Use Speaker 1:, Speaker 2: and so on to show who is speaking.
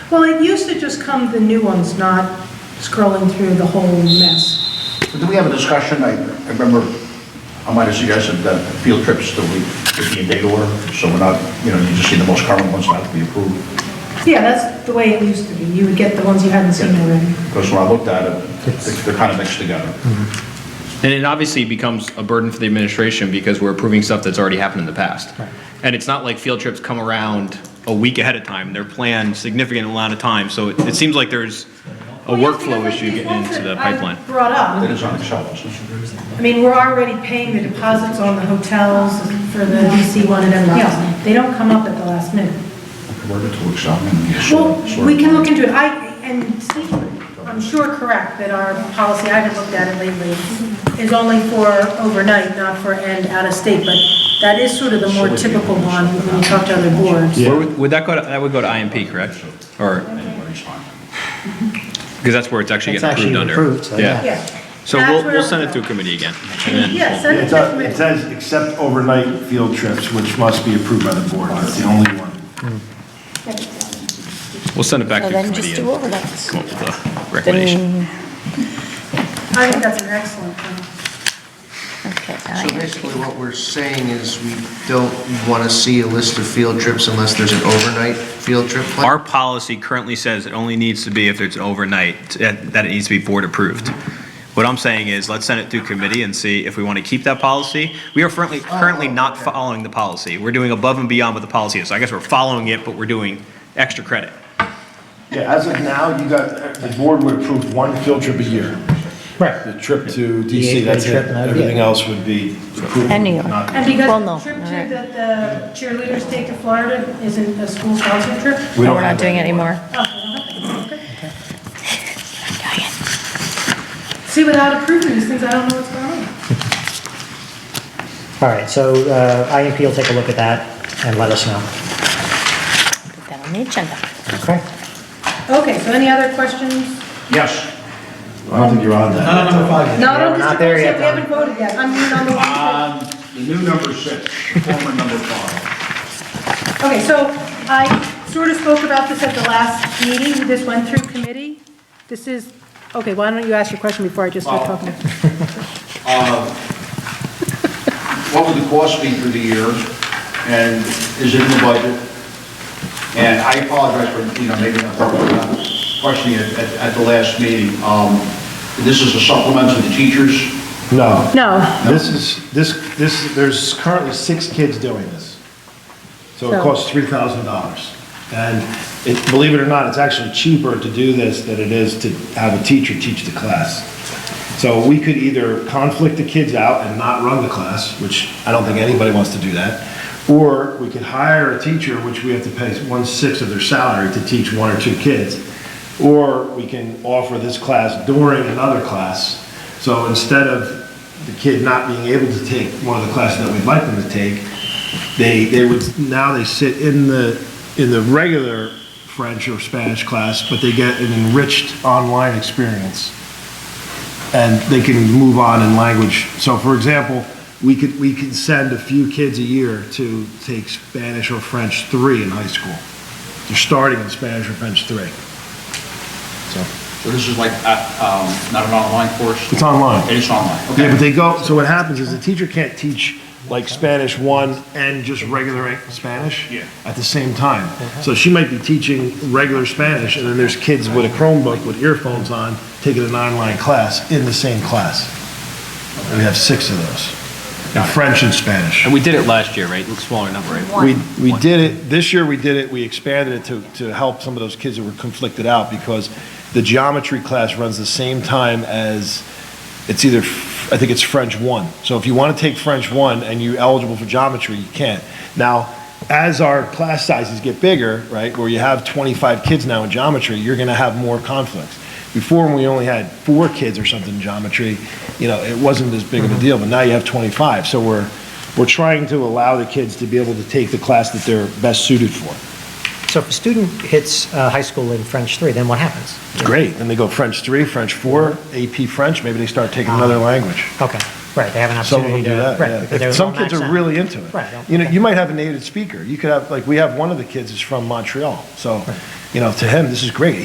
Speaker 1: Well, it used to just come the new ones, not scrolling through the whole mess.
Speaker 2: Did we have a discussion? I I remember, I might have suggested that field trips that we, could be in date order, so we're not, you know, you just see the most current ones not to be approved.
Speaker 1: Yeah, that's the way it used to be. You would get the ones you hadn't seen already.
Speaker 2: Because when I looked at it, they- they're kind of mixed together.
Speaker 1: Mm-hmm.
Speaker 3: And it obviously becomes a burden for the administration because we're approving stuff that's already happened in the past. And it's not like field trips come around a week ahead of time. They're planned significant amount of time. So it, it seems like there's a workflow issue getting into the pipeline.
Speaker 1: Brought up.
Speaker 2: It is on Excel, isn't it?
Speaker 1: I mean, we're already paying the deposits on the hotels for the DC one and everything else. They don't come up at the last minute.
Speaker 2: Converted to Excel and you
Speaker 1: Well,
Speaker 2: sort- sort
Speaker 1: we
Speaker 2: of-
Speaker 1: can look into it. I, and Steve, I'm sure correct that our policy, I haven't looked at it lately, is only for overnight, not for and out of state, but that is sort of the more typical one when you talk to other boards.
Speaker 3: Where would, would that go to, that would go to IMP, correct? Or,
Speaker 2: Everybody's fine.
Speaker 3: because that's where it's actually
Speaker 4: It's
Speaker 3: getting approved
Speaker 4: actually
Speaker 3: under.
Speaker 4: approved, so yeah.
Speaker 1: Yeah.
Speaker 3: So
Speaker 1: That's
Speaker 3: we'll,
Speaker 1: where-
Speaker 3: we'll send it through committee again. and then
Speaker 1: Yeah,
Speaker 3: we'll-
Speaker 1: send it
Speaker 5: It
Speaker 1: to
Speaker 5: does- it
Speaker 1: committee.
Speaker 5: says, except overnight field trips, which must be approved by the board, that's the only one.
Speaker 3: We'll send it back
Speaker 6: So
Speaker 3: to
Speaker 6: then just
Speaker 3: committee
Speaker 6: do
Speaker 3: and
Speaker 6: overlays.
Speaker 3: come up with a recommendation.
Speaker 1: I think that's an excellent thing.
Speaker 6: Okay,
Speaker 7: So
Speaker 6: I-
Speaker 7: basically, what we're saying is we don't want to see a list of field trips unless there's an overnight field trip plan.
Speaker 3: Our policy currently says it only needs to be if it's overnight, that that it needs to be board approved. What I'm saying is, let's send it through committee and see if we want to keep that policy. We are currently, currently not following the policy. We're doing above and beyond what the policy is. I guess we're following it, but we're doing extra credit.
Speaker 5: Yeah, as of now, you got, the board would approve one field trip a year. The
Speaker 4: Right.
Speaker 5: trip to DC,
Speaker 4: eight-day
Speaker 5: that's it.
Speaker 4: trip, no, yeah.
Speaker 5: Everything else would be approved.
Speaker 6: And New York.
Speaker 5: not-
Speaker 1: And
Speaker 6: Well,
Speaker 1: because
Speaker 6: no,
Speaker 1: the trip
Speaker 6: all
Speaker 1: to,
Speaker 6: right.
Speaker 1: that the cheerleaders take to Florida isn't a school sponsored trip?
Speaker 5: We
Speaker 6: No,
Speaker 5: don't
Speaker 6: Oh, we're
Speaker 5: have
Speaker 6: not
Speaker 5: that
Speaker 6: doing it anymore.
Speaker 1: See, without approving these things, I don't know what's going on.
Speaker 4: All right, so uh, IMP will take a look at that and let us know.
Speaker 6: Put that on the agenda.
Speaker 4: Okay?
Speaker 1: Okay, so any other questions?
Speaker 2: Yes.
Speaker 5: I don't think you're on that.
Speaker 1: Not on
Speaker 4: we're
Speaker 1: district
Speaker 4: not there
Speaker 1: ownership,
Speaker 4: yet,
Speaker 1: we haven't voted yet. I'm moving on the one.
Speaker 2: Um, The new number six, former number five.
Speaker 1: Okay, so I sort of spoke about this at the last meeting, this went through committee. This is, okay, why don't you ask your question before I just start
Speaker 2: Well-
Speaker 1: talking?
Speaker 2: what would the cost be for the year, and is it in the budget? And I apologize for, you know, maybe not uh, questioning it at, at the last meeting. Um, This is a supplement to the teachers.
Speaker 5: No,
Speaker 1: No,
Speaker 5: this is, this, this, there's currently six kids doing this. So
Speaker 1: So-
Speaker 5: it costs three thousand dollars. And it, believe it or not, it's actually cheaper to do this than it is to have a teacher teach the class. So we could either conflict the kids out and not run the class, which I don't think anybody wants to do that. Or we could hire a teacher, which we have to pay one-sixth of their salary to teach one or two kids. Or we can offer this class during another class. So instead of the kid not being able to take one of the classes that we'd like them to take, they, they would, now they sit in the, in the regular French or Spanish class, but they get an enriched online experience. And they can move on in language. So for example, we could, we could send a few kids a year to take Spanish or French three in high school. They're starting in Spanish or French three.
Speaker 2: So this is like, uh, um, not an online course?
Speaker 5: It's online.
Speaker 2: It is online, okay.
Speaker 5: Yeah, but they go, so what happens is the teacher can't teach like Spanish one and just regular Spanish
Speaker 2: Yeah.
Speaker 5: at the same time. So she might be teaching regular Spanish and then there's kids with a Chromebook with earphones on, taking an online class in the same class. And we have six of those, in French and Spanish.
Speaker 3: And we did it last year, right? Smaller number, right?
Speaker 5: We, we did it, this year we did it, we expanded it to, to help some of those kids that were conflicted out because the geometry class runs the same time as, it's either, I think it's French one. So if you want to take French one and you're eligible for geometry, you can't. Now, as our class sizes get bigger, right, where you have 25 kids now in geometry, you're going to have more conflicts. Before, when we only had four kids or something in geometry, you know, it wasn't as big of a deal, but now you have 25. So we're, we're trying to allow the kids to be able to take the class that they're best suited for.
Speaker 4: So if a student hits uh, high school in French 3, then what happens?
Speaker 5: It's great. Then they go French 3, French 4, AP French, maybe they start taking another language.
Speaker 4: Okay, Right, they have an
Speaker 5: Some of them
Speaker 4: opportunity
Speaker 5: do
Speaker 4: to.
Speaker 5: that,
Speaker 4: right,
Speaker 5: yeah.
Speaker 4: because they're
Speaker 5: If Some
Speaker 4: all
Speaker 5: kids
Speaker 4: maxed
Speaker 5: are
Speaker 4: out.
Speaker 5: really into it.
Speaker 4: Right.
Speaker 5: You know, you might have a native speaker. You could have, like, we have one of the kids is from Montreal, so, you know, to him, this is great.